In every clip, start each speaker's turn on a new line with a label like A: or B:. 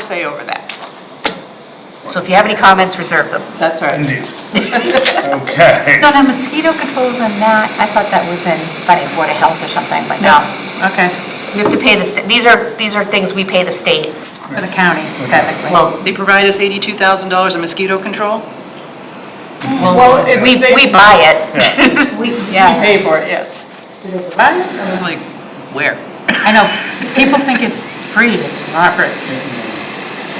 A: say over that.
B: So if you have any comments, reserve them.
A: That's right.
C: Indeed. Okay.
D: So now mosquito controls and that, I thought that was in, but in Board of Health or something, but no. Okay.
B: We have to pay the, sta- these are, these are things we pay the state.
D: For the county, technically.
B: Well,
A: They provide us $82,000 in mosquito control?
B: well, we, we buy it.
D: We, yeah.
A: pay for it, yes. I was like, where?
D: I know, people think it's free, it's not free.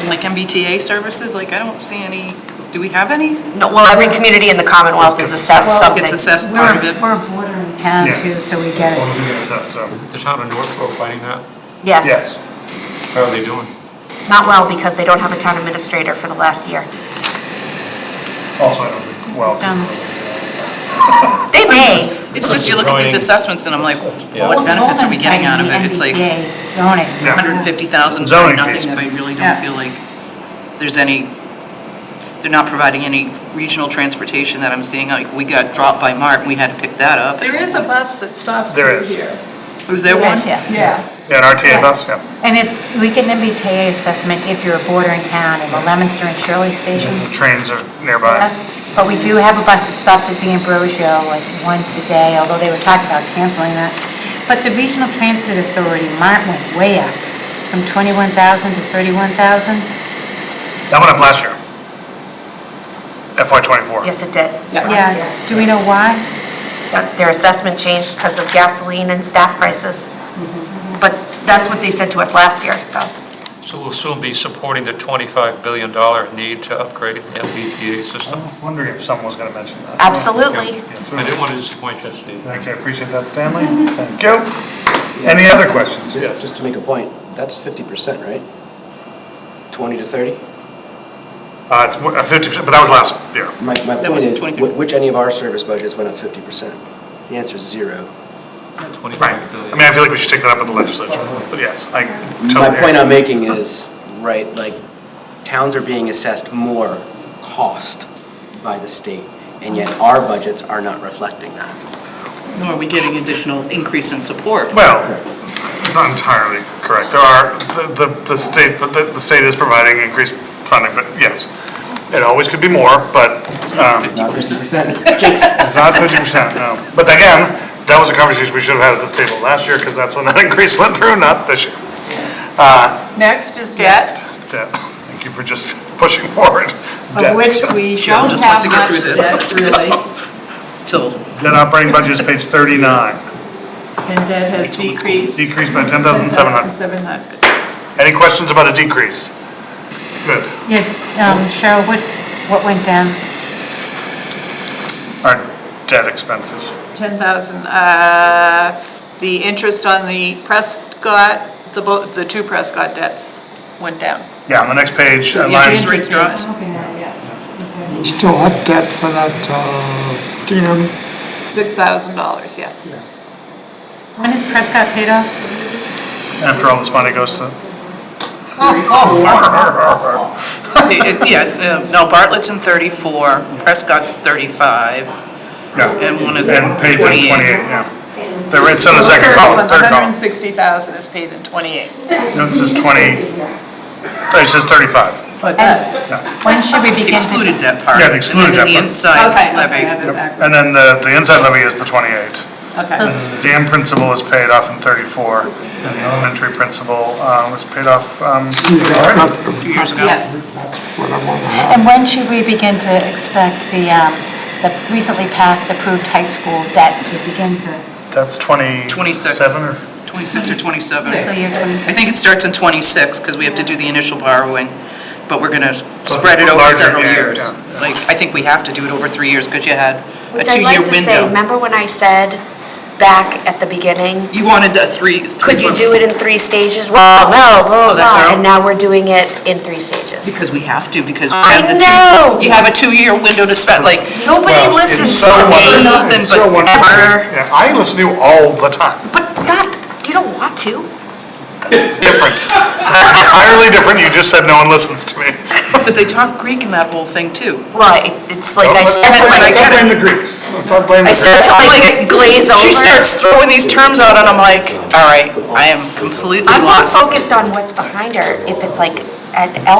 A: Like MBTA services, like I don't see any, do we have any?
B: No, well, every community in the Commonwealth is assessed
D: Well,
B: something.
A: It's assessed part
D: We're,
A: of it.
D: we're a bordering town
C: Yeah.
D: too, so we get
C: Well,
D: it.
C: we're doing this, that's, um,
E: Isn't the town of Northborough fighting that?
B: Yes,
E: How are they doing?
B: not well, because they don't have a town administrator for the last year.
C: Also, I don't think, well.
D: Um,
B: They may.
A: It's just you look at these assessments and I'm like, what benefits are we getting out of it? It's like
D: MBTA zoning.
C: Yeah.
A: 150,000 for
C: Zoning
A: nothing
C: based.
A: that I really don't
D: Yeah.
A: feel like there's any, they're not providing any regional transportation that I'm seeing. Like, we got dropped by Mart and we had to pick that up.
F: There is a bus that stops
C: There
F: through
C: is.
F: here.
A: Was there one?
D: Yes, yeah.
F: Yeah.
C: Yeah, an RTA bus, yeah.
D: And it's, we get an MBTA assessment if you're a bordering town in the Lemonster and Shirley
C: The
D: stations.
C: Trains are nearby.
D: Yes. But we do have a bus that stops at D'Ambrosio like once a day, although they were talking about canceling that. But the Regional Transit Authority, Mart went way up from 21,000 to 31,000.
C: That went up last year. FY twenty-four.
B: Yes, it did.
D: Yeah, do we know why?
B: that their assessment changed because of gasoline and staff prices.
D: Mm-hmm.
B: But that's what they said to us last year, so.
E: So we'll soon be supporting the $25 billion need to upgrade the MBTA
C: I
E: system.
C: was wondering if someone was gonna mention that.
B: Absolutely.
C: Yes, we
E: I didn't
C: will.
E: want to disappoint you, Steve.
C: Okay, appreciate that, Stanley. Thank you. Any other questions?
G: Just, just to make a point, that's fifty percent, right? Twenty to thirty?
C: Uh, it's mo- uh, 50%, but that was last year.
G: My, my
A: That
G: point
A: was
G: is,
A: 20.
G: wh- which any of our service budgets went up fifty percent? The answer is zero.
C: Right.
E: 25
C: I
E: billion.
C: mean, I feel like we should take that up with the legislature, but yes, I totally.
G: My point I'm making is, right, like, towns are being assessed more cost by the state, and yet our budgets are not reflecting that.
A: Nor are we getting additional increase in support.
C: Well, it's not entirely correct. There are, the, the, the state, but the, the state is providing increased funding, but yes. It always could be more, but, um,
G: It's not fifty percent. Jinx.
C: it's not fifty percent, no. But again, that was a conversation we should have had at this table last year, because that's when that increase went through, not this year.
F: Next is debt,
C: Debt. Thank you for just pushing forward.
F: of
C: Debt.
F: which we don't
A: just wants
F: have
A: to get
F: much
A: through
F: debt,
A: this.
F: really.
A: Till
C: Debt operating budget is page thirty-nine,
F: And debt has decreased.
C: decreased by ten thousand seven hundred.
F: 10,700.
C: Any questions about a decrease? Good.
D: Yeah, um, Cheryl, what, what went down?
C: Our debt expenses.
F: 10,000, uh, the interest on the Prescott, the, bo- the two Prescott debts went down.
C: Yeah, on the next page,
A: the
C: uh,
A: interest
C: line
A: rates dropped.
H: Still have debt for that, uh, Keenum.
F: $6,000, yes.
D: When is Prescott paid off?
C: after all this money goes to.
A: It- it- Yes, uh, no, Bartlett's in 34, Prescott's 35,
C: Yeah,
A: and one is
C: and page in 28,
A: 28.
C: yeah. The rate's in the second column, third column.
F: 160,000 is paid in 28.
C: No, it says 20, it says 35.
F: But that's,
D: When should we begin to?
A: Excluded debt part.
C: Yeah, the excluded
A: And then
C: debt
A: the
C: part.
A: inside
F: okay, okay, I
A: levy.
F: have it backwards.
C: And then the, the inside levy is the 28.
F: Okay.
C: The dam principal is paid off in 34, and the elementary principal um, was paid off, um,
H: See, that's not,
A: Two years ago.
F: Yes,
H: that's what I want to have.
D: And when should we begin to expect the, um, the recently passed approved high school debt to begin to?
C: that's 27
A: 26.
C: or
A: 26 or 27.
D: Fiscal year 20?
A: I think it starts in 26, because we have to do the initial borrowing, but we're going to spread it over
C: Larger,
A: several
C: yeah,
A: years.
C: yeah.
A: Like, I think we have to do it over three years, because you had a
B: Which I'd
A: two-year
B: like to say,
A: window.
B: remember when I said back at the beginning,
A: You wanted a three.
B: could you do it in three stages? Well, no, blah,
A: Oh, that
B: blah,
A: girl.
B: and now we're doing it in three stages.
A: Because we have to, because we
B: I
A: have the two.
B: know.
A: You have a two-year window to spend, like,
B: Nobody
C: Well,
B: listens
C: so
B: to
C: wonderful.
B: me,
A: nothing
C: It's so
A: but
C: wonderful.
A: butter.
C: Yeah, I listen to you all the time.
B: but not, you don't want to.
C: It's different. Entirely different, you just said no one listens to me.
A: but they talk Greek in that whole thing, too.
B: Well, it- it's like I
C: Let's
B: said,
C: not blame-
B: like,
C: Let's not blame the Greeks. Let's not blame the
B: I
C: Greeks.
B: said, like, glaze over.
A: She starts throwing these terms out, and I'm like, all right, I am completely
B: I'm not
A: lost.
B: focused on what's behind her, if it's like
D: at L